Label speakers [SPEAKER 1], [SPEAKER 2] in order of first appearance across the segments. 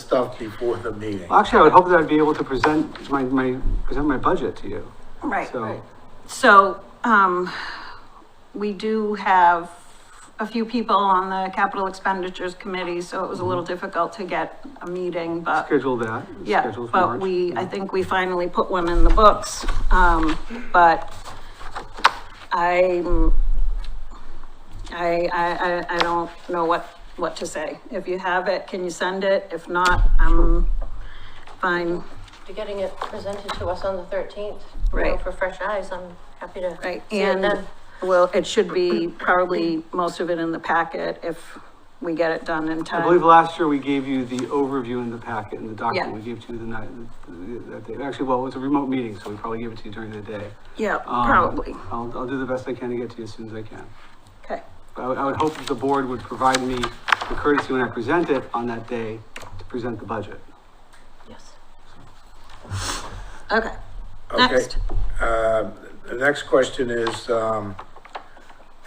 [SPEAKER 1] stuff before the meeting.
[SPEAKER 2] Well, Actually, I would hope that I'd be able to present my, my, present my budget to you.
[SPEAKER 3] Right.
[SPEAKER 2] So,
[SPEAKER 3] So, um, we do have a few people on the capital expenditures committee, so it was a little
[SPEAKER 2] Mm-hmm.
[SPEAKER 3] difficult to get a meeting, but
[SPEAKER 2] schedule that.
[SPEAKER 3] yeah,
[SPEAKER 2] schedule for
[SPEAKER 3] but
[SPEAKER 2] March. Mm-hmm.
[SPEAKER 3] we, I think we finally put one in the books, um, but I'm, I, I, I, I don't know what, what to say. If you have it, can you send it? If not, I'm fine,
[SPEAKER 4] You're getting it presented to us on the thirteenth.
[SPEAKER 3] Right.
[SPEAKER 4] For fresh eyes, I'm happy to.
[SPEAKER 3] Right,
[SPEAKER 4] see it
[SPEAKER 3] and,
[SPEAKER 4] then.
[SPEAKER 3] well, it should be probably most of it in the packet if we get it done in
[SPEAKER 2] I believe
[SPEAKER 3] time.
[SPEAKER 2] last year we gave you the overview in the packet and the document
[SPEAKER 3] Yeah.
[SPEAKER 2] we gave to you the night, that day. Actually, well, it was a remote meeting, so we probably gave it to you during the day.
[SPEAKER 3] Yeah,
[SPEAKER 2] Um,
[SPEAKER 3] probably,
[SPEAKER 2] I'll, I'll do the best I can to get to you as soon as I can.
[SPEAKER 3] okay,
[SPEAKER 2] But I would, I would hope that the board would provide me the courtesy when I present it on that day to present the budget.
[SPEAKER 4] Yes.
[SPEAKER 3] okay.
[SPEAKER 1] Okay.
[SPEAKER 3] Next.
[SPEAKER 1] Uh, The next question is, um,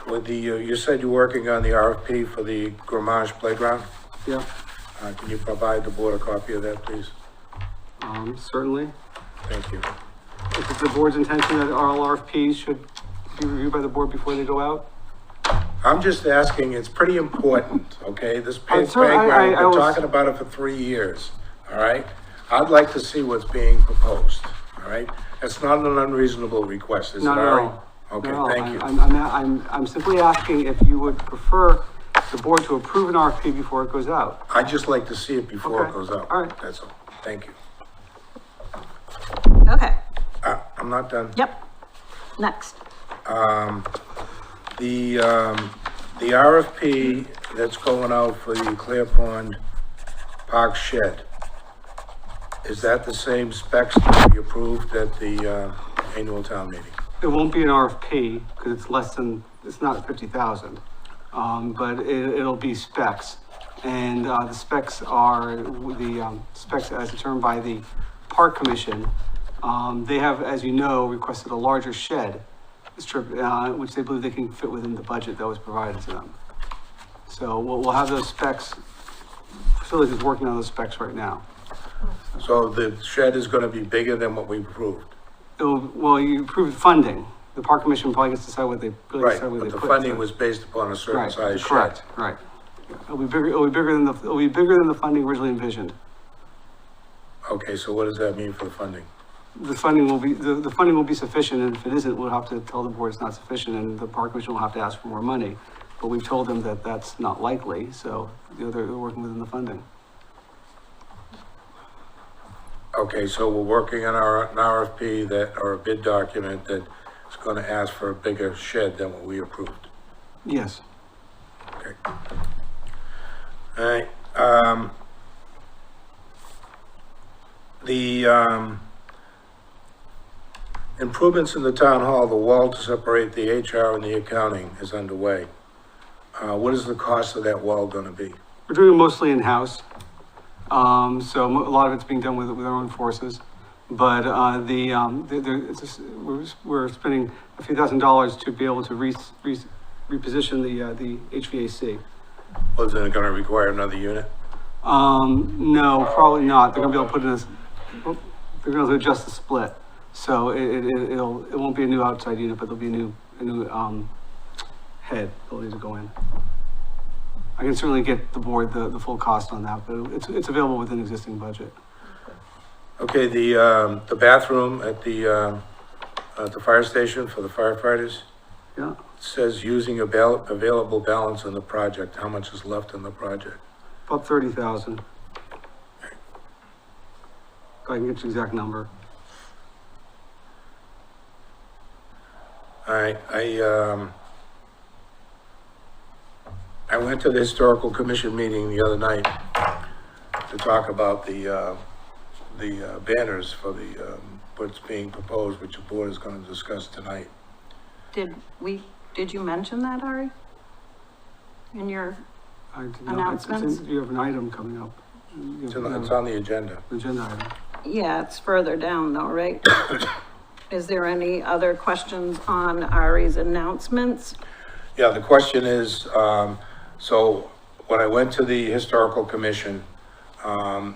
[SPEAKER 1] with the, uh, you you said you're working on the RFP for the Grammage Playground.
[SPEAKER 2] Yeah,
[SPEAKER 1] Uh, Can you provide the board a copy of that, please?
[SPEAKER 2] um, certainly.
[SPEAKER 1] Thank you.
[SPEAKER 2] If it's the board's intention that all RFPs should be reviewed by the board before they go out?
[SPEAKER 1] I'm just asking, it's pretty important, okay? This pa-
[SPEAKER 2] I'm sorry, I-
[SPEAKER 1] playground,
[SPEAKER 2] I- I
[SPEAKER 1] we're
[SPEAKER 2] was-
[SPEAKER 1] talking about it for three years, all right? I'd like to see what's being proposed, all right? That's not an unreasonable request, is it,
[SPEAKER 2] Not at
[SPEAKER 1] Ari?
[SPEAKER 2] all.
[SPEAKER 1] Okay,
[SPEAKER 2] No,
[SPEAKER 1] thank
[SPEAKER 2] I-
[SPEAKER 1] you.
[SPEAKER 2] I'm, I'm, I'm, I'm simply asking if you would prefer the board to approve an RFP before it goes out.
[SPEAKER 1] I'd just like to see it before it
[SPEAKER 2] Okay,
[SPEAKER 1] goes out.
[SPEAKER 2] all right.
[SPEAKER 1] That's all. Thank you.
[SPEAKER 3] Okay,
[SPEAKER 1] Uh, I'm not done.
[SPEAKER 3] yep, next,
[SPEAKER 1] The, um, the RFP that's going out for the Clear Pond Park Shed, is that the same specs that we approved at the, uh, annual town meeting?
[SPEAKER 2] It won't be an RFP because it's less than, it's not fifty thousand. Um, but it, it'll be specs. And, uh, the specs are the, um, specs as determined by the park commission. Um, they have, as you know, requested a larger shed strip, uh, which they believe they can fit within the budget that was provided to them. So we'll, we'll have those specs, facilities is working on those specs right now.
[SPEAKER 1] So the shed is gonna be bigger than what we approved?
[SPEAKER 2] It'll, well, you approved funding. The park commission probably gets to decide what they, really
[SPEAKER 1] Right,
[SPEAKER 2] decide what
[SPEAKER 1] but
[SPEAKER 2] they
[SPEAKER 1] the
[SPEAKER 2] put.
[SPEAKER 1] funding
[SPEAKER 2] so-
[SPEAKER 1] was based upon a certain
[SPEAKER 2] Right,
[SPEAKER 1] size shed.
[SPEAKER 2] correct, right. It'll be bigger, it'll be bigger than the, it'll be bigger than the funding originally envisioned.
[SPEAKER 1] Okay, so what does that mean for funding?
[SPEAKER 2] The funding will be, the, the funding will be sufficient, and if it isn't, we'll have to tell the board it's not sufficient, and the park commission will have to ask for more money. But we've told them that that's not likely, so, you know, they're, they're working within the funding.
[SPEAKER 1] Okay, so we're working on our, an RFP that, or a bid document that is gonna ask for a bigger shed than what we approved.
[SPEAKER 2] Yes.
[SPEAKER 1] Okay. All right, um, the, um, improvements in the town hall, the wall to separate the HR and the accounting is underway. Uh, what is the cost of that wall gonna be?
[SPEAKER 2] We're doing it mostly in-house. Um, so mo- a lot of it's being done with, with our own forces. But, uh, the, um, the, the, it's just, we're, we're spending a few thousand dollars to be able to re, re, reposition the, uh, the HVAC.
[SPEAKER 1] Was it gonna require another unit?
[SPEAKER 2] Um, no, probably not. They're gonna be able to put in this, they're gonna adjust the split. So it, it, it- it'll, it won't be a new outside unit, but there'll be a new, a new, um, head that'll need to go in. I can certainly get the board the, the full cost on that, but it's, it's available within existing budget.
[SPEAKER 1] Okay, the, um, the bathroom at the, um, at the fire station for the firefighters
[SPEAKER 2] Yeah,
[SPEAKER 1] says using a bal- available balance in the project, how much is left in the project?
[SPEAKER 2] about thirty thousand. I can get you the exact number.
[SPEAKER 1] All right, I, um, I went to the historical commission meeting the other night to talk about the, uh, the uh, banners for the, um, what's being proposed, which the board is gonna discuss tonight.
[SPEAKER 3] did we, did you mention that, Ari? In your,
[SPEAKER 2] I did not- it's- it's in-
[SPEAKER 3] Announcements?
[SPEAKER 2] You have an item coming up. You
[SPEAKER 1] It's
[SPEAKER 2] have-
[SPEAKER 1] on
[SPEAKER 2] you
[SPEAKER 1] the-
[SPEAKER 2] have
[SPEAKER 1] it's on the agenda.
[SPEAKER 2] an Agenda item.
[SPEAKER 3] yeah, it's further down though, right? Is there any other questions on Ari's announcements?
[SPEAKER 1] Yeah, the question is, um, so when I went to the historical commission, um,